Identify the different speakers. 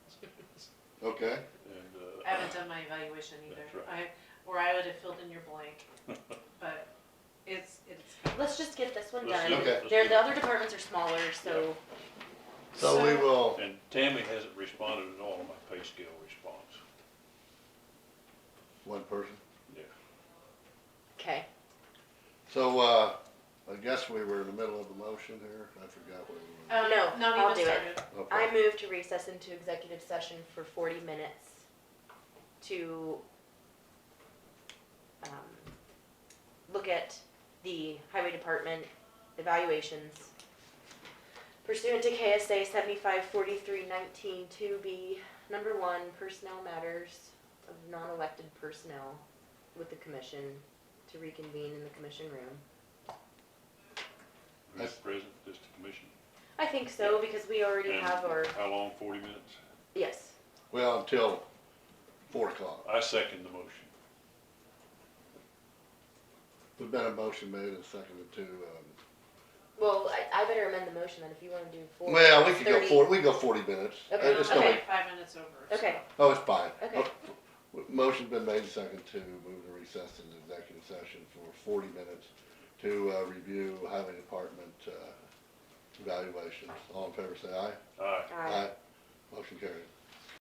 Speaker 1: Okay,
Speaker 2: and,
Speaker 3: I
Speaker 2: uh,
Speaker 3: haven't done my evaluation either.
Speaker 2: That's
Speaker 3: I, or I would have filled in your blank, but it's, it's.
Speaker 4: Let's just get this one
Speaker 2: Let's do it.
Speaker 4: done.
Speaker 1: Okay.
Speaker 2: Let's
Speaker 4: There,
Speaker 2: do
Speaker 4: the
Speaker 2: it.
Speaker 4: other departments are smaller, so
Speaker 1: so we will,
Speaker 2: And Tammy hasn't responded at all to my pay scale response.
Speaker 1: one person.
Speaker 2: Yeah.
Speaker 4: okay.
Speaker 1: So, uh, I guess we were in the middle of the motion here. I forgot where we
Speaker 3: Um,
Speaker 4: No,
Speaker 3: not
Speaker 4: I'll
Speaker 3: even
Speaker 4: do it.
Speaker 3: started.
Speaker 1: were. Okay.
Speaker 4: I move to recess into executive session for forty minutes to um, look at the highway department evaluations pursuant to KSA seventy-five forty-three nineteen two B, number one, personnel matters of non-elected personnel with the commission to reconvene in the commission room.
Speaker 2: Who's present, just the commission.
Speaker 4: I think so, because we already
Speaker 2: And
Speaker 4: have our,
Speaker 2: How long, forty minutes?
Speaker 4: yes,
Speaker 1: Well, until four o'clock.
Speaker 2: I second the motion.
Speaker 1: There's been a motion made and seconded to, um,
Speaker 4: well, I, I better amend the motion then if you wanna do four.
Speaker 1: well, we could go
Speaker 4: 30.
Speaker 1: four, we can go forty minutes.
Speaker 4: Okay.
Speaker 1: Uh, It's
Speaker 4: still
Speaker 1: gonna
Speaker 4: Okay.
Speaker 1: be-
Speaker 3: Five minutes over. so.
Speaker 4: Okay,
Speaker 1: Oh, it's fine.
Speaker 4: Okay.
Speaker 1: Mo- Motion's been made and seconded to move to recess into executive session for forty minutes to, uh, review highway department, uh, evaluations. All in favor, say aye.
Speaker 2: Aye.
Speaker 4: alright.
Speaker 1: Motion carried.